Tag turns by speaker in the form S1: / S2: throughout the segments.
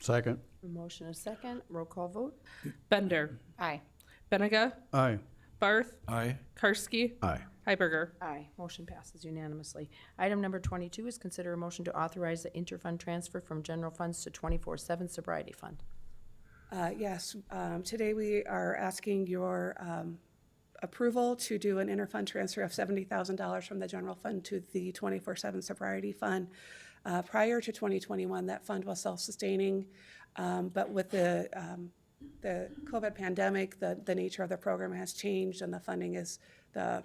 S1: Second.
S2: Motion is second. Roll call vote.
S3: Bender.
S2: Aye.
S3: Benega.
S1: Aye.
S3: Barth.
S4: Aye.
S3: Karski.
S1: Aye.
S3: Heiberger.
S2: Aye. Motion passes unanimously. Item number twenty-two is consider a motion to authorize the interfund transfer from general funds to twenty-four seven sobriety fund.
S5: Uh, Yes, um, today we are asking your um, approval to do an interfund transfer of $70,000 from the general fund to the 24/7 sobriety fund. Uh, Prior to 2021, that fund was self-sustaining, um, but with the um, the COVID pandemic, the the nature of the program has changed and the funding is, the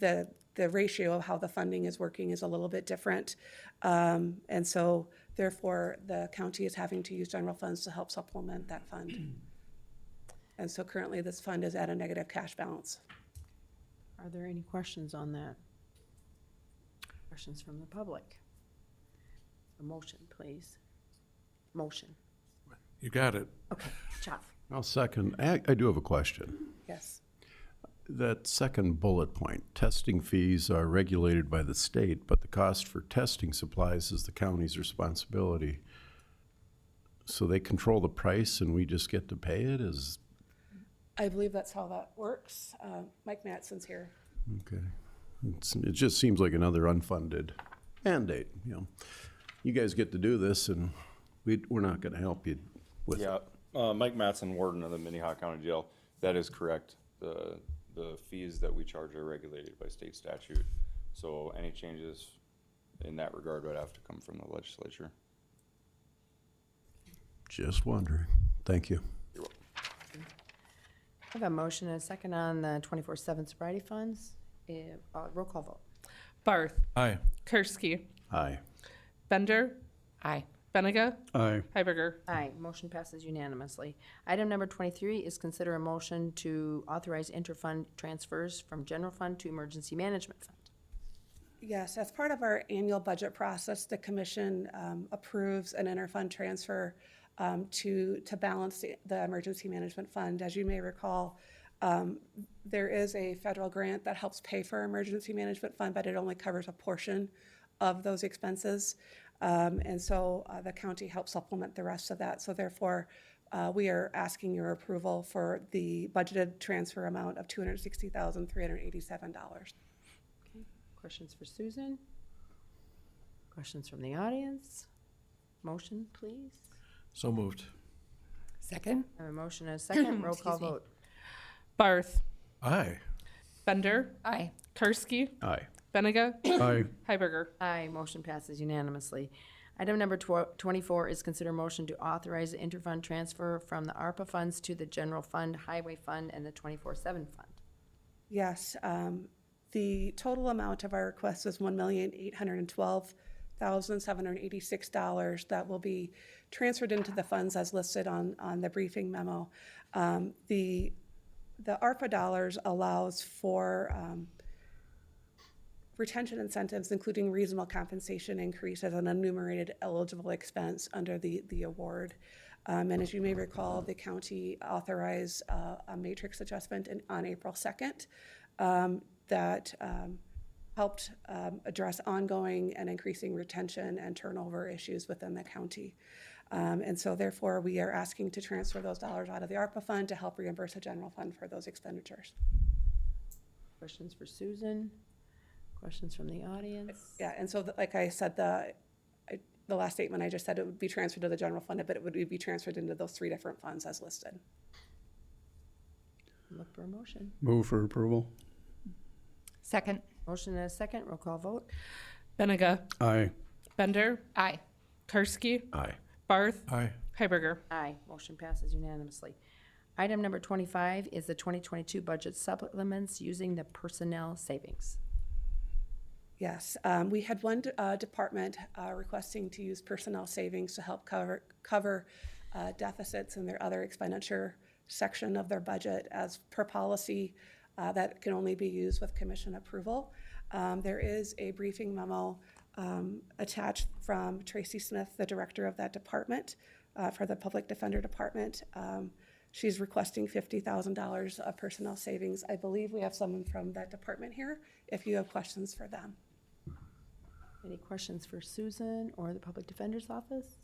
S5: the the ratio of how the funding is working is a little bit different. Um, and so therefore, the county is having to use general funds to help supplement that fund. And so currently, this fund is at a negative cash balance.
S2: Are there any questions on that? Questions from the public? A motion, please. Motion.
S4: You got it.
S2: Okay, Jeff.
S1: I'll second. I, I do have a question.
S5: Yes.
S1: That second bullet point, testing fees are regulated by the state, but the cost for testing supplies is the county's responsibility. So they control the price and we just get to pay it is,
S5: I believe that's how that works. Uh, Mike Matson's here.
S1: okay. It's, it just seems like another unfunded mandate, you know. You guys get to do this and we, we're not gonna help you with it.
S6: Yeah, uh, Mike Matson, warden of the Minnehaha County Jail. That is correct. The, the fees that we charge are regulated by state statute. So any changes in that regard would have to come from the legislature.
S1: Just wondering. Thank you.
S2: I have a motion and a second on the twenty-four seven sobriety funds. Eh, uh, roll call vote.
S3: Barth.
S4: Aye.
S3: Karski.
S1: Aye.
S3: Bender.
S2: Aye.
S3: Benega.
S1: Aye.
S3: Heiberger.
S2: Aye, motion passes unanimously. Item number twenty-three is consider a motion to authorize interfund transfers from general fund to emergency management fund.
S5: Yes, as part of our annual budget process, the commission um, approves an interfund transfer um, to, to balance the- the emergency management fund. As you may recall, um, there is a federal grant that helps pay for emergency management fund, but it only covers a portion of those expenses. Um, And so uh, the county helps supplement the rest of that. So therefore, uh, we are asking your approval for the budgeted transfer amount of $260,387.
S2: Questions for Susan? Questions from the audience? Motion, please.
S4: So moved.
S7: Second?
S2: I have a motion and a second, roll call vote.
S3: Barth.
S4: Aye.
S3: Bender.
S7: Aye.
S3: Karski.
S1: Aye.
S3: Benega.
S1: Aye.
S3: Heiberger.
S2: Aye, motion passes unanimously. Item number tw- twenty-four is consider motion to authorize the interfund transfer from the ARPA funds to the general fund, highway fund, and the twenty-four seven fund.
S5: Yes, um, the total amount of our request is one million eight hundred and twelve thousand seven hundred and eighty-six dollars that will be transferred into the funds as listed on, on the briefing memo. Um, the, the ARPA dollars allows for, um, retention incentives, including reasonable compensation increase as an enumerated eligible expense under the, the award. Um, and as you may recall, the county authorized uh, a matrix adjustment in, on April 2nd um, that um, helped um, address ongoing and increasing retention and turnover issues within the county. Um, and so therefore, we are asking to transfer those dollars out of the ARPA fund to help reimburse the general fund for those expenditures.
S2: Questions for Susan? Questions from the audience?
S5: Yeah, and so, th- like I said, the, I- the last statement I just said, it would be transferred to the general fund, but it would be transferred into those three different funds as listed.
S2: Look for a motion.
S1: Move for approval.
S7: Second?
S2: Motion and a second, roll call vote.
S3: Benega.
S1: Aye.
S3: Bender.
S7: Aye.
S3: Karski.
S1: Aye.
S3: Barth.
S4: Aye.
S3: Heiberger.
S2: Aye, motion passes unanimously. Item number twenty-five is the twenty twenty-two budget supplements using the personnel savings.
S5: Yes, um, we had one uh, department uh, requesting to use personnel savings to help cover, cover uh, deficits in their other expenditure section of their budget as per policy uh, that can only be used with commission approval. Um, There is a briefing memo um, attached from Tracy Smith, the director of that department, uh, for the Public Defender Department. Um, She's requesting fifty thousand dollars of personnel savings. I believe we have someone from that department here, if you have questions for them.
S2: Any questions for Susan or the Public Defender's Office?